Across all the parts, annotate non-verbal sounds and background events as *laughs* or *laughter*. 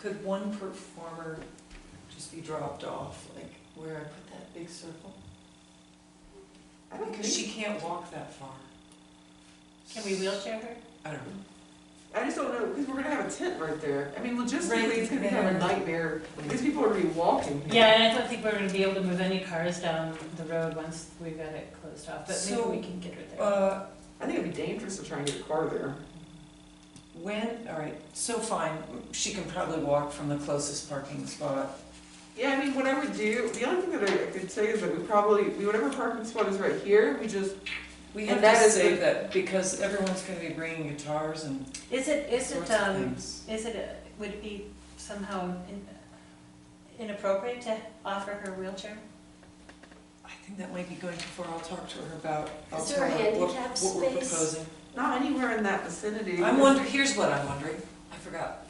Could one performer just be dropped off, like where I put that big circle? I don't Because think, she can't walk that far. Can we wheelchair her? I don't know. I just don't know, because we're gonna have a tent right there. I mean, logistically, it's gonna be Right. kind of a nightmare. These people are gonna be walking. Yeah, and I don't think we're gonna be able to move any cars down the road once we've got it closed off, but So, maybe we can get her there. Uh, I think it'd be dangerous to try and get a car there. when, all right, so fine, she can probably walk from the closest parking spot. Yeah, I mean, what I would do, the only thing that I could say is that we probably, we whatever parking spot is right here, we just, We And have to that is save a- that because everyone's gonna be bringing guitars and Is it, is it, sorts of um, things. is it, uh, would it be somehow in- inappropriate to offer her wheelchair? I think that might be going too far. I'll talk to her about, I'll Is tell there a her what, handicap what we're space? proposing. not anywhere in that vicinity. I'm wondering, here's what I'm wondering, I forgot.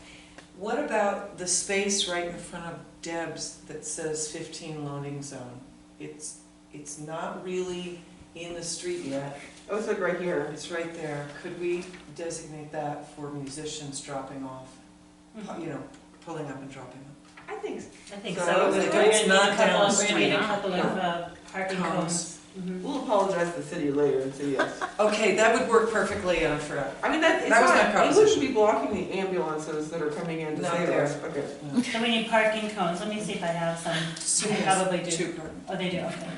What about the space right in front of Deb's that says fifteen loading zone? It's, it's not really in the street yet, Oh, it's like right here. it's right there. Could we designate that for musicians dropping off, Mm-hmm. you know, pulling up and dropping off? I think, I think So, so. it's We're gonna need a not couple- down the We're gonna need a street. couple of uh, parking Cones. cones. Mhm. we'll apologize to the city later and *laughs* say yes. Okay, that would work perfectly, and I forgot. I mean, that, it's That was my not, it proposition. wouldn't be blocking the ambulances that are coming in to Not save there. us. Okay. So we need parking cones, let me see if I have some, Two, I probably do. two per- oh, they do, okay.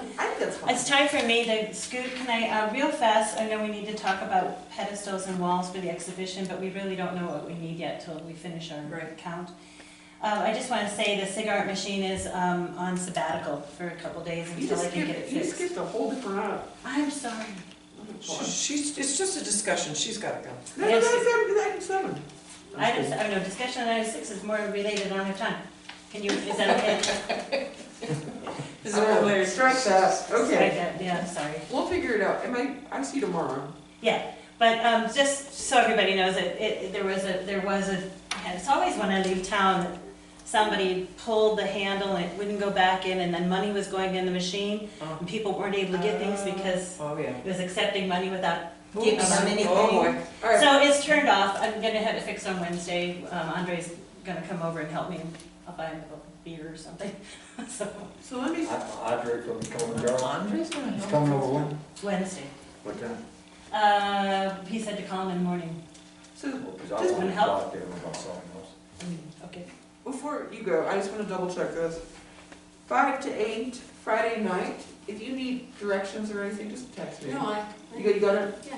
I think that's fine. It's time for me to scoot, can I, uh, real fast, I know we need to talk about pedestals and walls for the exhibition, but we really don't know what we need yet till we finish our Right. count. Um, I just wanna say the cigarette machine is, um, on sabbatical for a couple days You until just I can get it skipped, you fixed. skipped a whole different aisle. I'm sorry. She- She's, it's just a discussion, she's gotta go. No, no, Yes. that's item, item seven. Item, s- oh no, discussion on item six is more related, I don't have time. Can you, is that okay? Is there a way- Strike that, Strike *laughs* okay. that, Yeah, sorry. We'll figure it out. Am I, I see you tomorrow. But um, just so everybody knows, it, it, there was a, there was a, it's always when I leave town, that somebody pulled the handle and it wouldn't go back in and then money was going in the machine Oh. and people weren't able to get things because Oh, yeah. it was accepting money without giving Oops. them anything. Oh, boy. All right, So it's turned off. I'm gonna have it fixed on Wednesday. Um, Andre's gonna come over and help me. I'll buy him a beer or something. *laughs* So so let me, Audrey from Coleman Girl. Andre's gonna He's help coming us. over when? Wednesday. What time? Uh, he said to call him in the morning. so Because I Just wanted one to help. talk to him about something else. Mm, Okay. Before you go, I just want to double check this. Five to eight, Friday night. If you need directions or anything, just text me. No, I. You got, you got it? Yeah.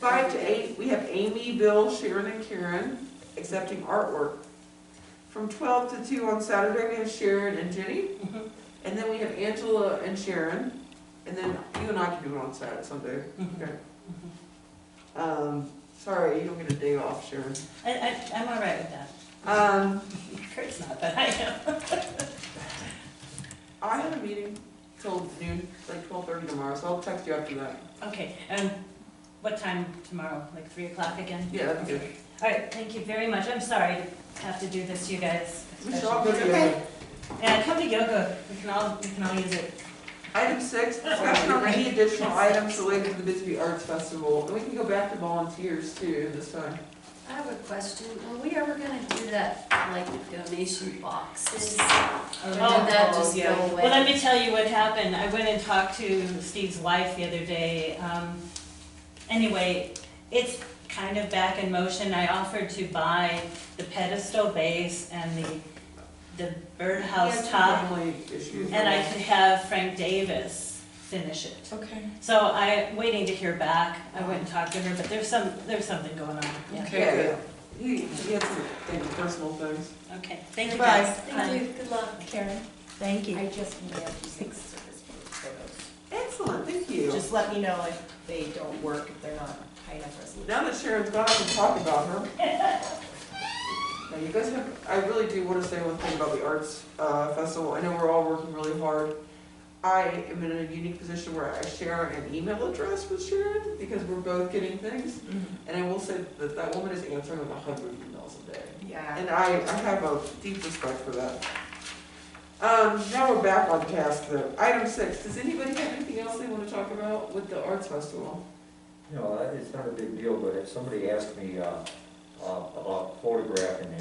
Five to eight, we have Amy, Bill, Sharon, and Karen accepting artwork. From twelve to two on Saturday, we have Sharon and Jenny. Mhm. And then we have Angela and Sharon. And then you and I can do it on Saturday someday. Mhm. Okay. Um, sorry, you don't get a day off, Sharon. I, I, I'm all right with that. *laughs* Um, Kurt's not, but I am. I have a meeting till noon, like twelve thirty tomorrow, so I'll text you after that. Okay, and what time tomorrow, like three o'clock again? Yeah, that'd be good. All right, thank you very much, I'm sorry to have to do this to you guys. We should all go especially. together. Yeah, come to yoga, we can all, we can all use it. Item six, discussion on any additional items related to the Bisbee Arts Festival, and we can go back to volunteers too this time. I have a question. Are we ever gonna do that, like donation boxes? Or did Oh, that just yeah. go away? Well, let me tell you what happened, I went and talked to Steve's wife the other day. Um, Anyway, it's kind of back in motion, I offered to buy the pedestal base and the, the birdhouse top. Family issues. And I could have Frank Davis finish it. Okay. So I, waiting to hear back, I went and talked to her, but there's some, there's something going on, yeah. Okay. Yeah, yeah. He, he had some things, personal things. Okay, thank you Bye. guys. Bye. Thank you, good luck. Karen? Thank you. I just mailed you six service photos. Excellent, thank you. Just let me know if they don't work, if they're not high enough resolution. Now that Sharon's gone, I can talk about her. Now, you guys have, I really do want to say one thing about the arts uh, festival. I know we're all working really hard. I am in a unique position where I share an email address with Sharon because we're both getting things. And I will say that that woman is answering like a hundred emails a day. Yeah. And I, I have a deep respect for that. Um, now we're back on task though. Item six, does anybody have anything else they want to talk about with the arts festival? You know, that- it's not a big deal, but if somebody asked me, uh, uh, about photographing the